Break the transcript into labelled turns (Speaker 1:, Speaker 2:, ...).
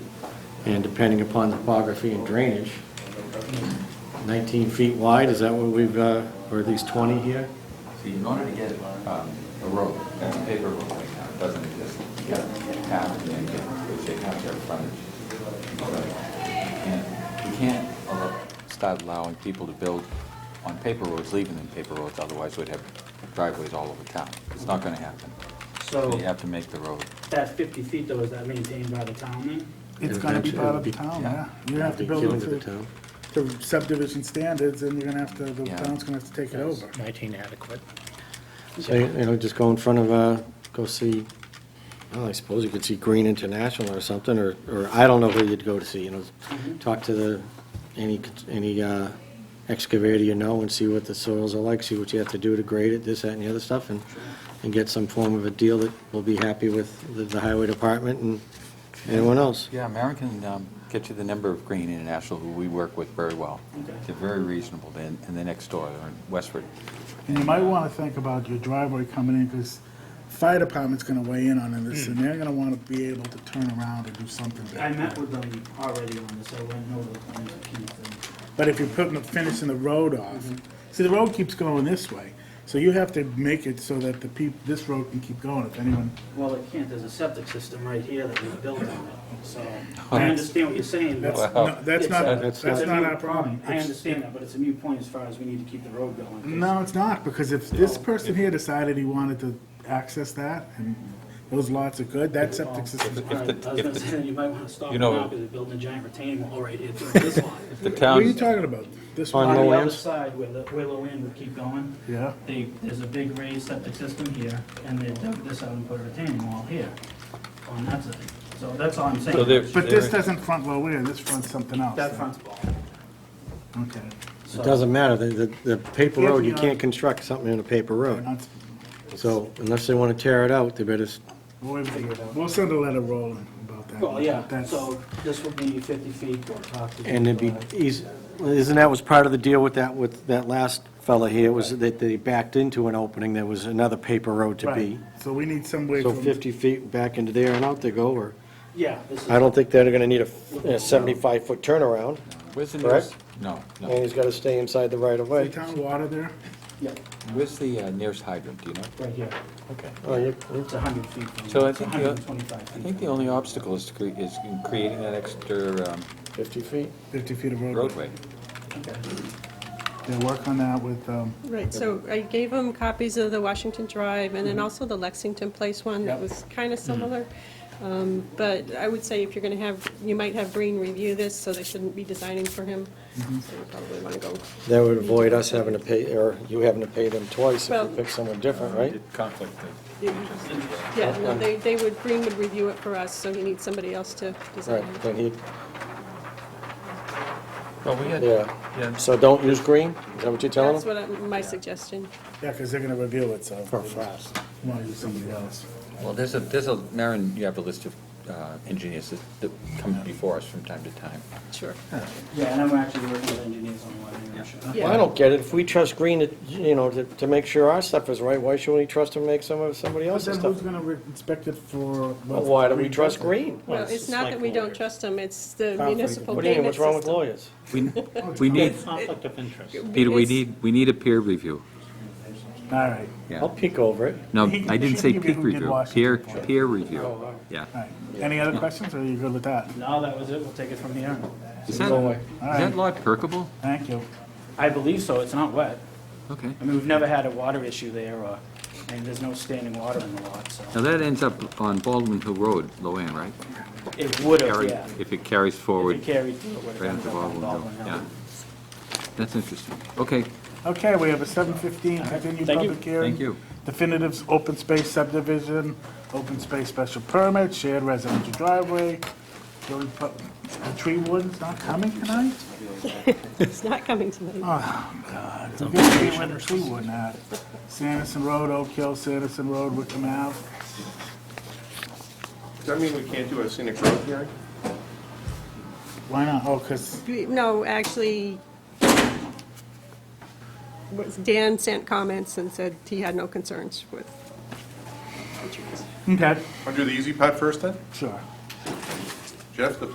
Speaker 1: And depending upon topography and drainage, 19 feet wide, is that what we've, uh, or at least 20 here?
Speaker 2: See, in order to get um, a road, that's a paper road right now, it doesn't exist. You got to tap and then get, which they have their frontage. And we can't allo- start allowing people to build on paper roads, leaving them paper roads, otherwise we'd have driveways all over town. It's not gonna happen.
Speaker 3: So
Speaker 2: You have to make the road.
Speaker 3: that 50 feet though, is that maintained by the town then?
Speaker 4: It's gonna be part of the town, yeah. You're gonna have to
Speaker 1: Be
Speaker 4: build
Speaker 1: killed
Speaker 4: it
Speaker 1: to the
Speaker 4: to-
Speaker 1: town.
Speaker 4: to subdivision standards, and you're gonna have to, the
Speaker 2: Yeah.
Speaker 4: town's gonna have to take it over.
Speaker 5: 19 adequate.
Speaker 1: So, you know, just go in front of, uh, go see, well, I suppose you could see Green International or something, or, or I don't know where you'd go to see, you know, talk to the, any, any uh, excavator you know and see what the soils are like, see what you have to do to grade it, this, that, and the other stuff, and, and get some form of a deal that will be happy with the- the highway department and anyone else.
Speaker 2: Yeah, American, um, get you the number of Green International, who we work with very well.
Speaker 3: Okay.
Speaker 2: They're very reasonable, They're in- and they're next door, they're in Westford.
Speaker 4: And you might wanna think about your driveway coming in, because fire department's gonna weigh in on this, and they're gonna wanna be able to turn around and do something.
Speaker 3: I
Speaker 4: there.
Speaker 3: met with them already on this, I went over the plans with Keith and
Speaker 4: But if you're putting, the- finishing the road off, see, the road keeps going this way, so you have to make it so that the peop, this road can keep going, if anyone,
Speaker 3: Well, it can't, there's a septic system right here that we built on it, so I understand what you're saying.
Speaker 4: that's,
Speaker 3: but
Speaker 2: Wow.
Speaker 4: no, that's
Speaker 3: it's a-
Speaker 4: not,
Speaker 3: it's
Speaker 4: that's
Speaker 3: a
Speaker 4: not
Speaker 3: moot
Speaker 4: our problem.
Speaker 3: I
Speaker 4: It's-
Speaker 3: understand that, but it's a new point as far as we need to keep the road going. 'cause
Speaker 4: No, it's not, because if
Speaker 1: Oh,
Speaker 4: this person here decided he wanted to access that, and those lots are good, that septic system,
Speaker 3: I was gonna say, you might wanna stop
Speaker 2: You
Speaker 3: it
Speaker 2: know-
Speaker 3: now, because they're building a giant retaining wall right here through this lot.
Speaker 2: The
Speaker 4: what are you
Speaker 2: town,
Speaker 4: talking about? This
Speaker 1: On
Speaker 3: On
Speaker 4: one?
Speaker 1: Low
Speaker 3: the other
Speaker 1: ends?
Speaker 3: side, where the, where low end would keep going,
Speaker 4: Yeah,
Speaker 3: they, there's a big raised septic system here, and they dug this out and put a retaining wall here on that side. So that's all I'm saying.
Speaker 2: So there-
Speaker 4: but this doesn't front low in, this fronts something else.
Speaker 3: That front's ball.
Speaker 4: Okay.
Speaker 1: It doesn't matter, the, the- the paper road, you
Speaker 4: Yeah.
Speaker 1: can't construct something in a paper road.
Speaker 4: Not-
Speaker 1: So unless they want to tear it out, they better s-
Speaker 4: We'll we'll send a letter rolling about that.
Speaker 3: Well, yeah,
Speaker 4: That's-
Speaker 3: so this would be 50 feet or talk to. uh,
Speaker 1: And it'd be, eas- isn't that was part of the deal with that, with that last fella here, was that they backed into an opening, there was another paper road to be.
Speaker 4: Right, so we need some way
Speaker 1: So
Speaker 4: from,
Speaker 1: 50 feet back into there and out they go, or,
Speaker 3: Yeah, this is.
Speaker 1: I don't think they're gonna need a 75-foot turnaround,
Speaker 2: where's the
Speaker 1: Correct?
Speaker 2: nearest? No,
Speaker 1: and
Speaker 2: no.
Speaker 1: he's gotta stay inside the
Speaker 4: the
Speaker 1: right-of-way.
Speaker 4: town water there,
Speaker 3: Yeah,
Speaker 2: Where's the uh, nearest hydrant, do you know?
Speaker 3: right here.
Speaker 2: Okay.
Speaker 1: Oh, you-
Speaker 3: It's 100 feet from.
Speaker 2: So I
Speaker 3: it's
Speaker 2: think the-
Speaker 3: 125
Speaker 2: I
Speaker 3: feet.
Speaker 2: think the only obstacle is, to cre- is in creating that extra um,
Speaker 1: 50 feet?
Speaker 4: 50 feet of road.
Speaker 2: roadway.
Speaker 3: Okay.
Speaker 4: They'll work on that with, um,
Speaker 6: Right, so I gave them copies of the Washington Drive and then
Speaker 1: Mm-hmm.
Speaker 6: also the Lexington Place one that was kind of similar. Um, But I would say if you're going to have, you might have Green review this, so they shouldn't be designing for him. So you probably want to go.
Speaker 1: That would avoid us having to pay, or you having to pay them twice if
Speaker 6: Well-
Speaker 1: you pick someone different, right?
Speaker 2: Conflict.
Speaker 6: Yeah, no, they, they would, Green would review it for us, so he needs somebody else to design
Speaker 1: Right,
Speaker 6: it.
Speaker 1: then he,
Speaker 2: Well, we had,
Speaker 1: yeah.
Speaker 2: yeah,
Speaker 1: So don't use green, is that what you're telling
Speaker 6: That's
Speaker 1: them?
Speaker 6: what I- my suggestion.
Speaker 4: yeah, because they're going to review it, so.
Speaker 1: For fast.
Speaker 4: Want to use somebody else.
Speaker 2: well, there's a, there's a, Maren, you have a list of uh, engineers that- that come before us from time to time.
Speaker 6: Sure.
Speaker 3: Yeah, and I'm actually working with engineers on one. I'm sure.
Speaker 6: Yeah.
Speaker 1: Well, I don't get it. If we trust Green, to you know, to, to make sure our stuff is right, why shouldn't we trust him to make some of somebody
Speaker 4: But
Speaker 1: else's
Speaker 4: then
Speaker 1: stuff?
Speaker 4: who's going to inspect it for?
Speaker 1: Well, why do we trust Green?
Speaker 6: Well, it's not that we don't trust him, it's the
Speaker 4: Conflict.
Speaker 6: municipal
Speaker 1: What do you mean,
Speaker 6: payment
Speaker 1: what's
Speaker 6: system.
Speaker 1: wrong with lawyers?
Speaker 2: We, we need,
Speaker 5: Conflict of interest.
Speaker 2: Peter, we
Speaker 6: It's-
Speaker 2: need, we need a peer review.
Speaker 4: All right.
Speaker 2: Yeah.
Speaker 1: I'll peek over it.
Speaker 2: No,
Speaker 4: He-
Speaker 2: I
Speaker 4: he
Speaker 2: didn't
Speaker 4: should
Speaker 2: say
Speaker 4: give you
Speaker 2: peak
Speaker 4: who did
Speaker 2: review, peer,
Speaker 4: Washington for
Speaker 2: peer review, yeah.
Speaker 4: All right. Any other questions, or are you good with that?
Speaker 3: No, that was it. We'll take it from here.
Speaker 2: Is that,
Speaker 1: Go away.
Speaker 2: is that lot perkable?
Speaker 4: Thank you.
Speaker 3: I believe so. It's not wet.
Speaker 2: Okay.
Speaker 3: I mean, we've never had a water issue there or, and there's no standing water in the lot, so.
Speaker 2: Now, that ends up on Baldwin Hill Road, Loanne, right?
Speaker 3: It would have,
Speaker 2: Carry-
Speaker 3: yeah. If
Speaker 2: If it carries
Speaker 3: it
Speaker 2: forward, right
Speaker 3: carried through, it would have
Speaker 2: into
Speaker 3: ended up on
Speaker 2: Baldwin Hill,
Speaker 3: Baldwin Hill.
Speaker 2: yeah. That's interesting. Okay,
Speaker 4: Okay, we have a seven fifteen continued
Speaker 3: Thank you.
Speaker 4: public hearing.
Speaker 2: thank you.
Speaker 4: Definitives, open space subdivision, open space special permit, shared residential driveway. Do we put- The tree warden's not coming tonight? Oh,
Speaker 6: It's not coming tonight.
Speaker 4: We got to get rid of the tree warden out. Sanderson Road, Oak Hill, Sanderson Road, Wickham Ave.
Speaker 7: Does that mean we can't do a scenic road hearing?
Speaker 4: Why not? Oh, because,
Speaker 6: No, actually, was- Dan sent comments and said he had no concerns with the trees.
Speaker 4: okay,
Speaker 7: Want to do the easy part first then?
Speaker 4: sure.
Speaker 7: Jeff, the